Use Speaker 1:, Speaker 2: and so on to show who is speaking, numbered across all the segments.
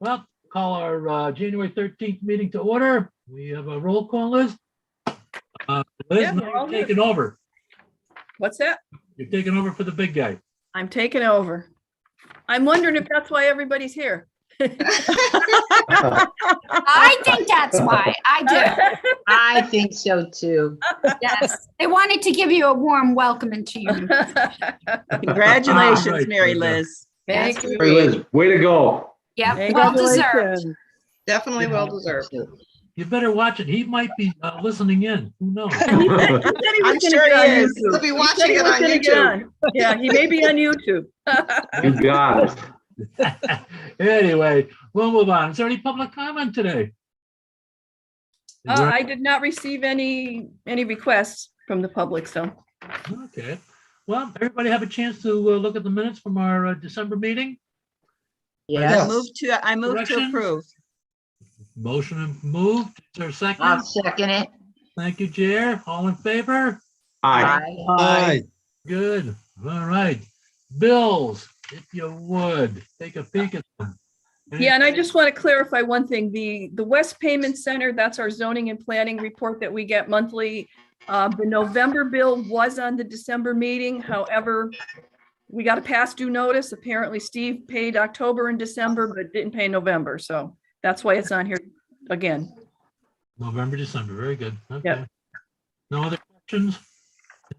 Speaker 1: Well, call our uh, January 13th meeting to order. We have a roll call list. Uh, Liz,
Speaker 2: Yeah, we're all
Speaker 1: now you're
Speaker 2: here.
Speaker 1: taking over.
Speaker 2: What's that?
Speaker 1: You're taking over for the big guy.
Speaker 2: I'm taking over. I'm wondering if that's why everybody's here.
Speaker 3: I think that's why. I
Speaker 4: I think so too.
Speaker 3: do. Yes. They wanted to give you a warm welcome into you.
Speaker 1: Right,
Speaker 5: Congratulations, Mary
Speaker 1: right there.
Speaker 5: Liz.
Speaker 3: Thank you.
Speaker 6: Mary Liz, way to go.
Speaker 3: Yep, well deserved.
Speaker 2: Congratulations.
Speaker 5: Definitely well deserved.
Speaker 1: You better watch it. He might be uh, listening in. Who knows?
Speaker 2: He said he was
Speaker 5: I'm
Speaker 2: gonna
Speaker 5: sure
Speaker 2: get on
Speaker 5: he is.
Speaker 2: YouTube.
Speaker 5: He'll be
Speaker 2: He
Speaker 5: watching
Speaker 2: said he
Speaker 5: it
Speaker 2: was
Speaker 5: on
Speaker 2: gonna get
Speaker 5: YouTube.
Speaker 2: on. Yeah, he may be on YouTube. Uh,
Speaker 6: You got it.
Speaker 1: Anyway, we'll move on. Is there any public comment today? Is
Speaker 2: Uh,
Speaker 1: there-
Speaker 2: I did not receive any, any requests from the public, so.
Speaker 1: Okay. Well, everybody have a chance to uh, look at the minutes from our uh, December meeting?
Speaker 5: I
Speaker 4: Yes.
Speaker 5: move to, I move to
Speaker 1: Corrections?
Speaker 5: approve.
Speaker 1: Motion moved. Is there a
Speaker 4: I'll
Speaker 1: second?
Speaker 4: second it.
Speaker 1: Thank you, Jer. All in favor?
Speaker 6: Aye.
Speaker 4: Aye.
Speaker 1: Good. All right. Bills, if you would, take a peek at them.
Speaker 2: Yeah, and I just want to clarify one thing. The, the West Payment Center, that's our zoning and planning report that we get monthly. Uh, The November bill was on the December meeting. However, we got a past due notice. Apparently Steve paid October and December, but didn't pay November. So that's why it's on here again.
Speaker 1: November, December. Very good. Okay.
Speaker 2: Yep.
Speaker 1: No other questions?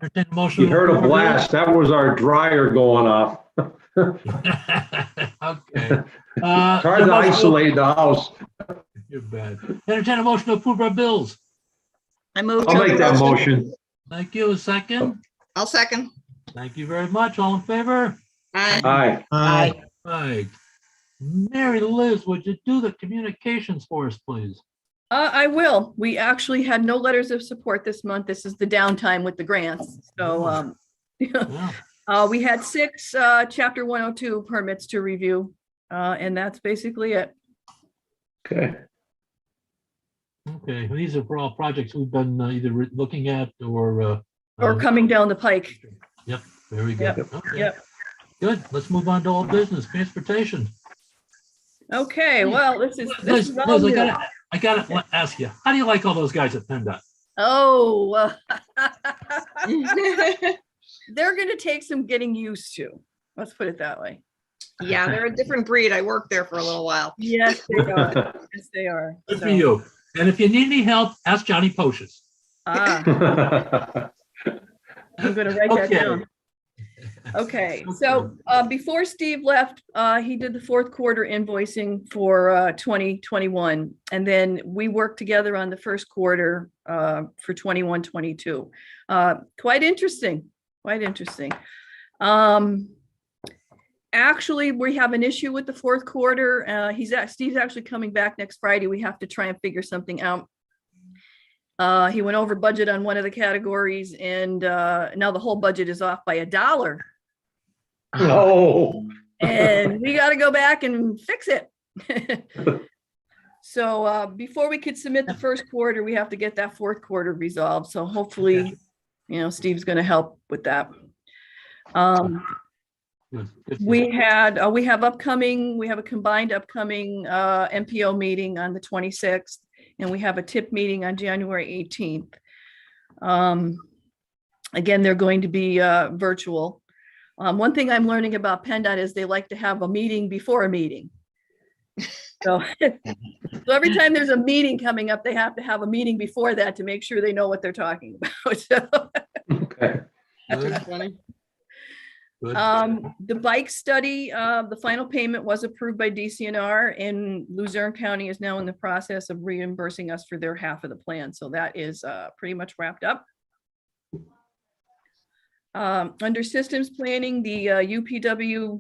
Speaker 1: Entertain a motion.
Speaker 6: You heard a blast. That was our dryer going off.
Speaker 1: Okay. Uh,
Speaker 6: Trying to isolate the house.
Speaker 1: You're bad. Entertain a motion to approve our bills.
Speaker 5: I move.
Speaker 6: I'll
Speaker 5: to
Speaker 6: make that
Speaker 5: approve.
Speaker 6: motion.
Speaker 1: Thank you. A second.
Speaker 6: Oh.
Speaker 5: I'll second.
Speaker 1: Thank you very much. All in favor?
Speaker 5: Aye.
Speaker 6: Aye.
Speaker 4: Aye.
Speaker 1: Right. Mary Liz, would you do the communications for us, please?
Speaker 2: Uh, I will. We actually had no letters of support this month. This is the downtime with the grants. So, um,
Speaker 1: Yeah.
Speaker 2: Uh, we had six, uh, chapter one oh two permits to review, uh, and that's basically it.
Speaker 6: Okay.
Speaker 1: Okay, well, these are for all projects we've been uh, either re- looking at or. uh,
Speaker 2: Or
Speaker 1: uh,
Speaker 2: coming down the pike.
Speaker 1: Yep, very good. Okay.
Speaker 2: yep.
Speaker 1: Good, let's move on to all business, transportation.
Speaker 2: Okay, well, this is, this
Speaker 1: Liz,
Speaker 2: is
Speaker 1: Liz,
Speaker 2: all
Speaker 1: I
Speaker 2: new.
Speaker 1: gotta, I gotta la- ask you, how do you like all those guys at PennDOT?
Speaker 2: Oh. uh, They're gonna take some getting used to. Let's put it that way.
Speaker 5: Yeah, they're a different breed. I worked there for a little while.
Speaker 2: Yes, they are. Yes, they are.
Speaker 1: Good for
Speaker 2: So,
Speaker 1: you. And if you need any help, ask Johnny Poshis.
Speaker 2: ah, I'm gonna write that
Speaker 1: Okay.
Speaker 2: down. Okay, so uh, before Steve left, uh, he did the fourth quarter invoicing for uh, 2021. And then we worked together on the first quarter uh, for 21, 22. Uh, Quite interesting, quite interesting. Um, Actually, we have an issue with the fourth quarter. Uh, He's, act- Steve's actually coming back next Friday. We have to try and figure something out. Uh, he went over budget on one of the categories and, uh, now the whole budget is off by a dollar.
Speaker 6: Oh,
Speaker 2: And we gotta go back and fix it. So, uh, before we could submit the first quarter, we have to get that fourth quarter resolved. So hopefully, you know, Steve's gonna help with that. Um,
Speaker 1: Good, good for
Speaker 2: we
Speaker 1: you.
Speaker 2: had, uh, we have upcoming, we have a combined upcoming, uh, MPO meeting on the twenty-sixth. And we have a tip meeting on January eighteenth. Um, again, they're going to be, uh, virtual. Um, one thing I'm learning about PennDOT is they like to have a meeting before a meeting. So, so every time there's a meeting coming up, they have to have a meeting before that to make sure they know what they're talking about. So,
Speaker 6: okay.
Speaker 1: Good, good.
Speaker 2: Um, the bike study, uh, the final payment was approved by DCNR and Luzerne County is now in the process of reimbursing us for their half of the plan. So that is, uh, pretty much wrapped up. Um, under systems planning, the, uh, UPWP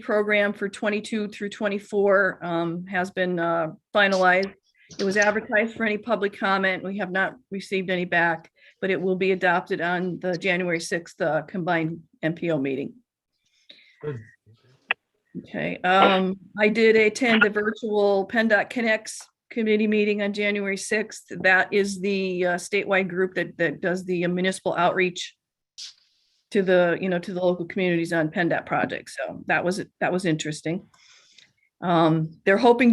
Speaker 2: program for twenty-two through twenty-four, um, has been, uh, finalized. It was advertised for any public comment. We have not received any back but it will be adopted on the January 6th uh, combined MPO meeting.
Speaker 1: Good.
Speaker 2: Okay, um, I did attend the virtual PennDOT Connects committee meeting on January 6th. That is the uh, statewide group that, that does the uh, municipal outreach to the, you know, to the local communities on PennDOT projects. So that was, that was interesting. Um, They're hoping to.